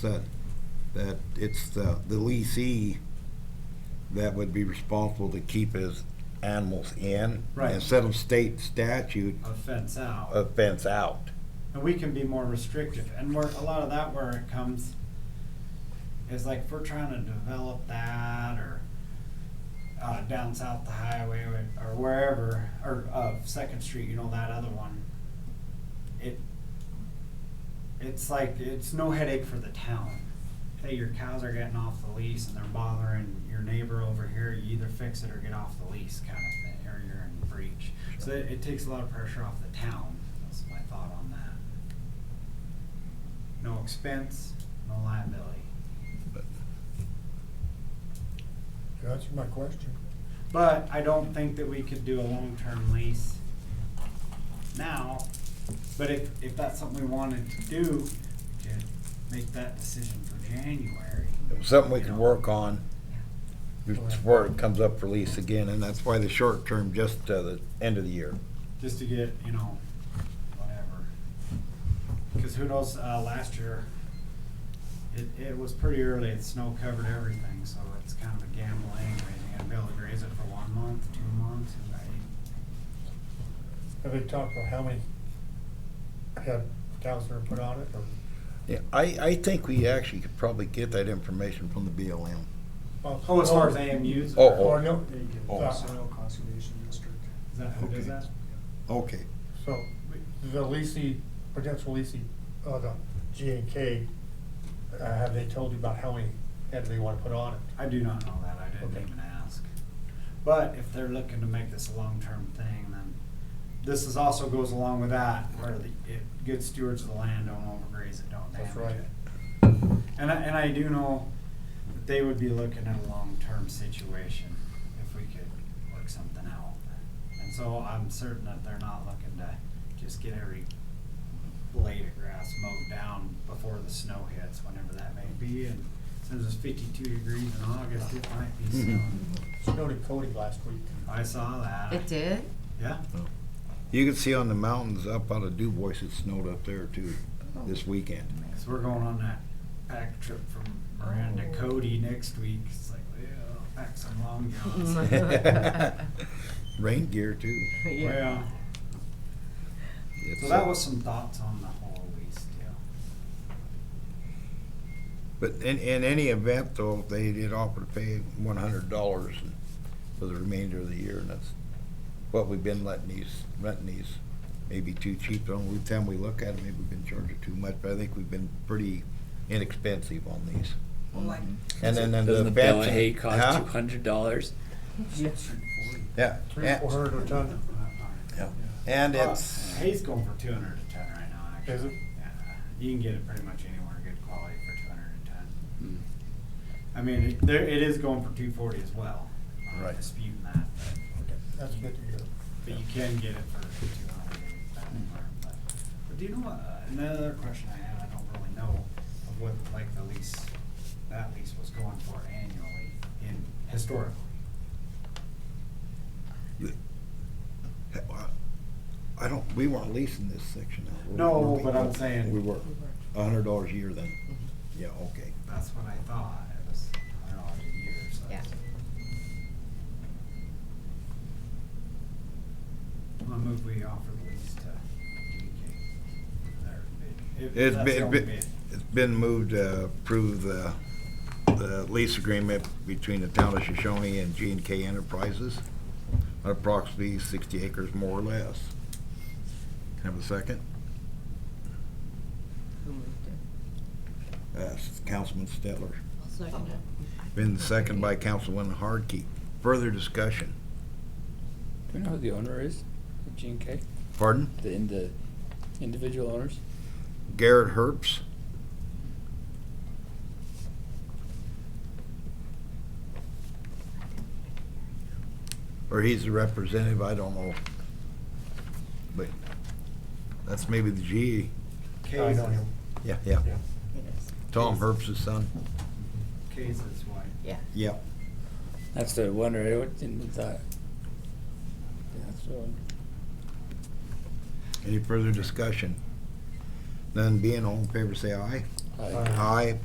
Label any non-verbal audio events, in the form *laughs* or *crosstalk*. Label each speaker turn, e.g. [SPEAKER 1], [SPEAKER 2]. [SPEAKER 1] said, that it's the, the leasee that would be responsible to keep his animals in.
[SPEAKER 2] Right.
[SPEAKER 1] Instead of state statute,
[SPEAKER 2] a fence out.
[SPEAKER 1] a fence out.
[SPEAKER 2] And we can be more restrictive, and where, a lot of that where it comes is like, if we're trying to develop that, or uh, down south the highway, or- or wherever, or, uh, Second Street, you know, that other one. It, it's like, it's no headache for the town. Hey, your cows are getting off the lease and they're bothering your neighbor over here, you either fix it or get off the lease kind of thing, or you're in breach. So it, it takes a lot of pressure off the town, that's my thought on that. No expense, no liability.
[SPEAKER 3] That's my question.
[SPEAKER 2] But I don't think that we could do a long-term lease now. But if, if that's something we wanted to do, we could make that decision for January.
[SPEAKER 1] It was something we could work on before it comes up for lease again, and that's why the short term, just to the end of the year.
[SPEAKER 2] just to get, you know, whatever. Because who knows, uh, last year, it, it was pretty early, it snow covered everything, so it's kind of a gamble anyways. You gotta be able to graze it for one month, two months, and I,
[SPEAKER 3] Have they talked about how many have cows that are put on it or
[SPEAKER 1] Yeah, I, I think we actually could probably get that information from the BLM.
[SPEAKER 2] oh, as far as AMUs.
[SPEAKER 1] Oh, oh.
[SPEAKER 3] Or no,
[SPEAKER 1] Oh.
[SPEAKER 3] so-
[SPEAKER 4] Soil Conservation District.
[SPEAKER 2] Is that, who does that?
[SPEAKER 1] Okay.
[SPEAKER 3] so the leasing, potential leasing, uh, the G and K, uh, have they told you about how many head they wanna put on it?
[SPEAKER 2] I do not know that, I
[SPEAKER 3] Okay.
[SPEAKER 2] didn't even ask. But if they're looking to make this a long-term thing, then this is also goes along with that, where the, it, good stewards of the land don't overgraze it, don't
[SPEAKER 3] That's
[SPEAKER 2] damage
[SPEAKER 3] right.
[SPEAKER 2] it. And I, and I do know that they would be looking at a long-term situation if we could work something out. And so I'm certain that they're not looking to just get every blade of grass mowed down before the snow hits, whenever that may be. And since it's fifty-two degrees in August, it might be snowing.
[SPEAKER 3] Snowed in Cody last week.
[SPEAKER 2] I saw that.
[SPEAKER 5] It did?
[SPEAKER 2] Yeah,
[SPEAKER 1] You can see on the mountains up out of Dubois, it snowed up there too, this weekend.
[SPEAKER 2] because we're going on that pack trip from Moran to Cody next week. It's like, yeah, pack some long
[SPEAKER 5] Mm-hmm.
[SPEAKER 2] johns.
[SPEAKER 1] *laughs* Rain gear too.
[SPEAKER 2] Yeah.
[SPEAKER 1] It's,
[SPEAKER 2] So
[SPEAKER 1] uh,
[SPEAKER 2] that was some thoughts on the whole lease deal.
[SPEAKER 1] But in, in any event though, they did offer to pay one hundred dollars for the remainder of the year and that's what we've been letting these, renting these, maybe too cheap. The only time we look at them, maybe we've been charging too much, but I think we've been pretty inexpensive on these.
[SPEAKER 6] Well, like,
[SPEAKER 1] And then, then
[SPEAKER 7] Doesn't
[SPEAKER 1] the
[SPEAKER 7] the bale of
[SPEAKER 1] fencing-
[SPEAKER 7] hay cost
[SPEAKER 1] Huh?
[SPEAKER 7] two hundred dollars?
[SPEAKER 1] Yeah,
[SPEAKER 3] Three,
[SPEAKER 1] yeah,
[SPEAKER 3] four hundred a ton,
[SPEAKER 1] and
[SPEAKER 2] Uh,
[SPEAKER 1] it's,
[SPEAKER 2] Hay's going for two hundred a ton right now, actually.
[SPEAKER 3] is it?
[SPEAKER 2] Yeah, you can get it pretty much anywhere, good quality for two hundred a ton.
[SPEAKER 7] Hmm.
[SPEAKER 2] I mean, it- there, it is going for two forty as well. I'm not
[SPEAKER 1] Right.
[SPEAKER 2] Disputing that, but,
[SPEAKER 3] That's good to hear.
[SPEAKER 2] but you can get it for two hundred anywhere, but. But do you know what, uh, another question I had, I don't really know of what, like, the lease, that lease was going for annually in, historically.
[SPEAKER 1] I don't, we weren't leasing this section out. were we?
[SPEAKER 2] No,
[SPEAKER 1] Were we?
[SPEAKER 2] but I'm saying- Mm-hmm.
[SPEAKER 1] We were, a hundred dollars a year then, yeah, okay.
[SPEAKER 2] That's what I thought, it was, I don't know, a year or so.
[SPEAKER 5] Yeah.
[SPEAKER 2] I move we offer the lease to DK. Their bid. If
[SPEAKER 1] It's
[SPEAKER 2] that's the
[SPEAKER 1] been,
[SPEAKER 2] only
[SPEAKER 1] been-
[SPEAKER 2] bid.
[SPEAKER 1] it's been moved to approve the, the lease agreement between the town of Shoshone and G and K Enterprises, approximately sixty acres more or less. Can I Have a second?
[SPEAKER 5] Who moved it?
[SPEAKER 1] Uh, Councilman Stettler. Been seconded by Councilman Hardkey. Further discussion.
[SPEAKER 7] Do we know who the owner is? G and K,
[SPEAKER 1] Pardon?
[SPEAKER 7] the, in the individual owners?
[SPEAKER 1] Garrett Herbst. Or he's the representative, I don't know. But that's maybe the G.
[SPEAKER 3] Oh, I
[SPEAKER 2] K's
[SPEAKER 3] know
[SPEAKER 2] is,
[SPEAKER 3] him.
[SPEAKER 1] Yeah, yeah.
[SPEAKER 3] Yeah.
[SPEAKER 5] It is.
[SPEAKER 1] Tom Herbst's son.
[SPEAKER 2] K's is white.
[SPEAKER 5] Yeah.
[SPEAKER 1] Yeah.
[SPEAKER 7] That's the wonder, I would- didn't thought. Yeah, That's the one.
[SPEAKER 1] Any further discussion? None being all in favor, say aye.
[SPEAKER 7] I-
[SPEAKER 1] Uh,
[SPEAKER 3] Aye.
[SPEAKER 1] Aye,